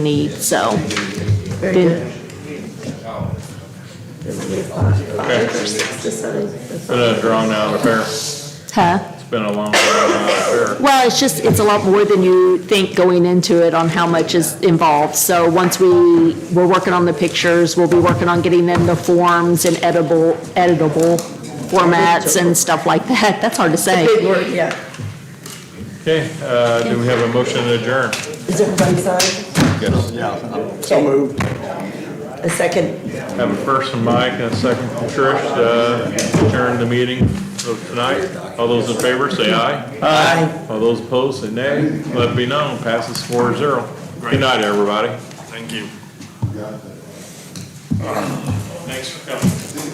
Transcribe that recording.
need, so. Been a drawn out affair. Huh? It's been a long, drawn out affair. Well, it's just, it's a lot more than you think going into it on how much is involved. So once we, we're working on the pictures, we'll be working on getting them the forms and editable, editable formats and stuff like that. That's hard to say. Big word, yeah. Okay, uh, do we have a motion to adjourn? Is everybody signed? So moved. A second. Have a first from Mike and a second from Trish to uh, adjourn the meeting of tonight. All those in favor, say aye. Aye. All those opposed, say nay. Let it be known, passes four zero. Good night, everybody. Thank you. Thanks for coming.